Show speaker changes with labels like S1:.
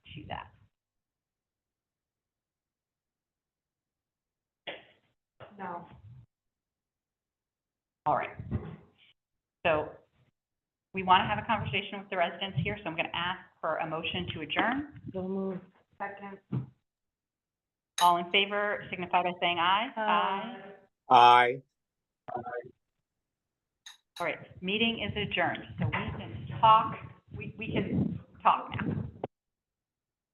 S1: No.
S2: All right. So we want to have a conversation with the residents here, so I'm going to ask for a motion to adjourn.
S3: So moved.
S1: Second.
S2: All in favor signify by saying aye.
S1: Aye.
S4: Aye.
S2: All right, meeting is adjourned, so we can talk, we, we can talk now.